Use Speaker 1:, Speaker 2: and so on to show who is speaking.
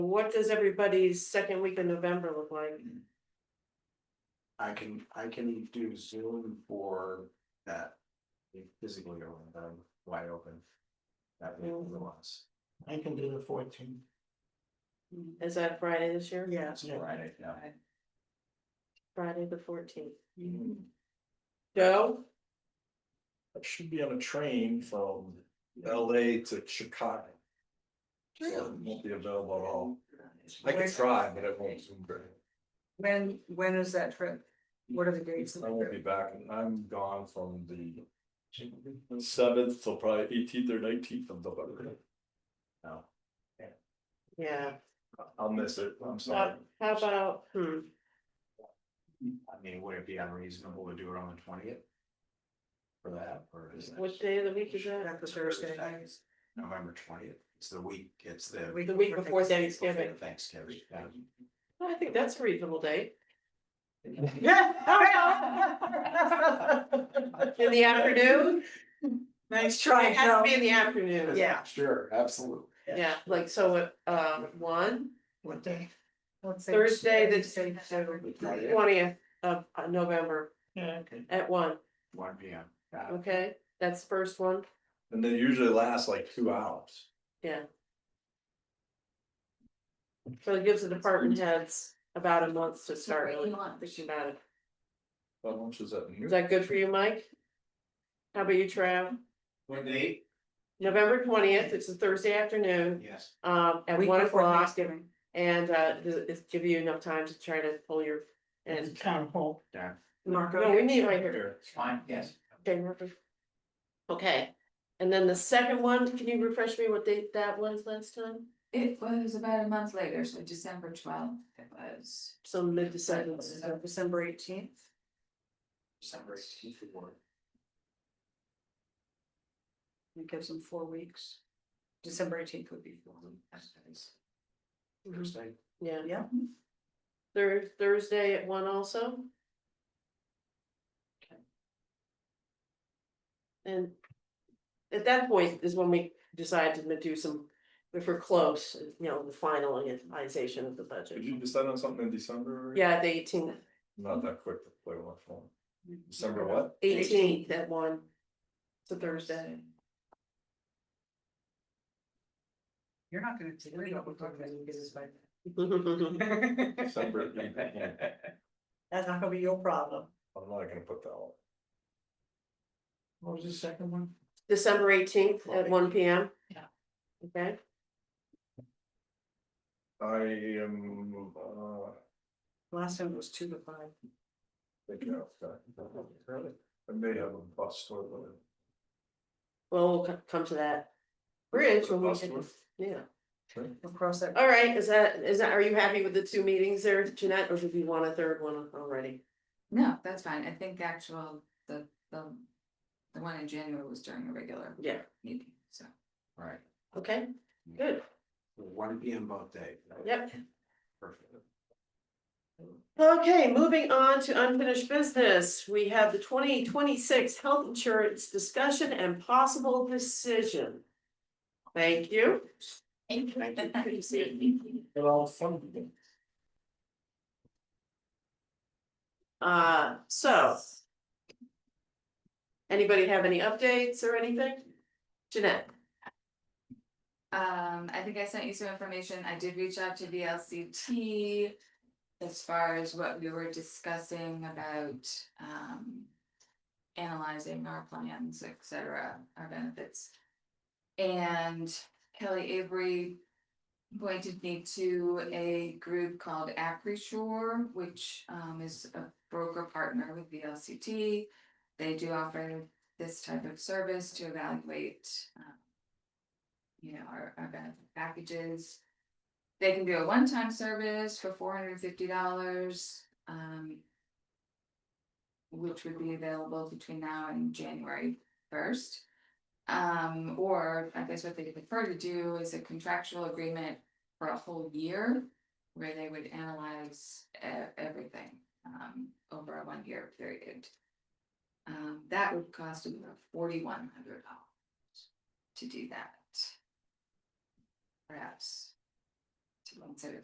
Speaker 1: What does everybody's second week in November look like?
Speaker 2: I can, I can do Zoom for that. Physically or when I'm wide open. That week
Speaker 3: Mm.
Speaker 1: Mhm.
Speaker 2: otherwise.
Speaker 4: I can do the fourteenth.
Speaker 1: Is that Friday this year?
Speaker 4: Yes.
Speaker 2: That's Friday, yeah.
Speaker 1: Friday the fourteenth. Joe?
Speaker 3: I should be on a train from LA to Chicago. So it won't be available at all. I can try, but it won't soon great.
Speaker 5: When, when is that trip? What are the dates? of the
Speaker 3: I won't be
Speaker 5: trip?
Speaker 3: back. I'm gone from the seventh till probably eighteenth or nineteenth of November.
Speaker 1: Yeah,
Speaker 3: I'll miss it. I'm sorry.
Speaker 1: how about, hmm,
Speaker 2: I mean, would it be unreasonable to do it on the twentieth? For that, or is
Speaker 1: which
Speaker 2: that
Speaker 1: day of the week is that?
Speaker 5: That's the Thursday night.
Speaker 2: November twentieth? It's the week, it's the.
Speaker 1: The week before
Speaker 2: before
Speaker 1: Thanksgiving.
Speaker 2: Thanksgiving, yeah.
Speaker 1: I think that's a reasonable date. In the afternoon?
Speaker 5: Nice
Speaker 1: It
Speaker 5: try,
Speaker 1: has to
Speaker 5: Joe.
Speaker 1: be in the afternoon.
Speaker 5: Yeah.
Speaker 2: Sure, absolutely.
Speaker 1: Yeah, like so at um one,
Speaker 5: What day? Let's say-
Speaker 1: Thursday, the
Speaker 5: Thursday, Saturday.
Speaker 2: Yeah.
Speaker 1: twentieth of uh, November
Speaker 4: Yeah, okay.
Speaker 1: at one,
Speaker 2: One P M.
Speaker 1: okay? That's the first one,
Speaker 3: And they usually last like two hours.
Speaker 1: so it gives the department heads about a month to start really thinking about it.
Speaker 3: How much is that?
Speaker 1: Is that good for you, Mike? How about you, Trav? November twentieth, it's a Thursday afternoon,
Speaker 2: Yes.
Speaker 1: um, at
Speaker 5: Week
Speaker 1: one
Speaker 5: before
Speaker 1: o'clock,
Speaker 5: Thanksgiving.
Speaker 1: and uh, does it give you enough time to try to pull your, and.
Speaker 4: Town hall.
Speaker 2: Darn.
Speaker 5: Marco.
Speaker 1: No, we meet right here.
Speaker 2: It's fine, yes.
Speaker 1: Okay, Murphy. Okay, and then the second one, can you refresh me what date that was last time?
Speaker 6: It was about a month later, so December twelfth it was.
Speaker 1: So mid-December.
Speaker 5: So December eighteenth.
Speaker 2: December 18th it worked.
Speaker 5: It gives them four weeks. December eighteenth would be four weeks.
Speaker 1: Mhm,
Speaker 2: Thursday.
Speaker 1: Yeah,
Speaker 5: Yeah.
Speaker 1: Thur- Thursday at one also. And at that point is when we decide to do some, if we're close, you know, the final finalization of the
Speaker 3: Did
Speaker 1: budget.
Speaker 3: you decide on something in December?
Speaker 1: Yeah, the eighteenth,
Speaker 3: Not that quick to play one phone. December what?
Speaker 1: eighteenth at one, it's a Thursday.
Speaker 5: You're not gonna. take- We're not gonna talk about any business by then.
Speaker 3: December. 18th.
Speaker 4: That's not gonna be your problem.
Speaker 3: I'm not gonna put that on.
Speaker 4: What was the second one?
Speaker 1: December eighteenth at one P M.
Speaker 4: Yeah.
Speaker 1: Okay,
Speaker 3: I am, uh,
Speaker 5: Last time it was two to five.
Speaker 3: thinking outside. I may have a bus or whatever.
Speaker 1: well, we'll co- come to that. Bridge when we,
Speaker 3: Last one.
Speaker 1: yeah,
Speaker 5: We'll cross that.
Speaker 1: all right, is that, is that, are you happy with the two meetings there, Jeanette, or did you want a third one already?
Speaker 6: No, that's fine. I think actual, the, the, the one in January was during a regular
Speaker 1: Yeah,
Speaker 6: meeting, so.
Speaker 2: Right,
Speaker 1: okay, good,
Speaker 2: one P M both day.
Speaker 1: yep.
Speaker 2: Perfect.
Speaker 1: Okay, moving on to unfinished business. We have the twenty twenty-six health insurance discussion and possible decision. Thank you.
Speaker 6: Thank
Speaker 2: Thank you.
Speaker 4: They're all funded.
Speaker 1: Uh, so. Anybody have any updates or anything? Jeanette?
Speaker 6: Um, I think I sent you some information. I did reach out to VLCT. As far as what we were discussing about, um. Analyzing our plans, et cetera, our benefits. And Kelly Avery. Appointed me to a group called ApriSure, which, um, is a broker partner with VLCT. They do offer this type of service to evaluate, um, you know, our, our benefit packages. They can do a one-time service for four hundred and fifty dollars, um. Which would be available between now and January first. Um, or I guess what they prefer to do is a contractual agreement for a whole year. Where they would analyze e- everything, um, over a one-year period. Um, that would cost about forty-one hundred dollars to do that perhaps to consider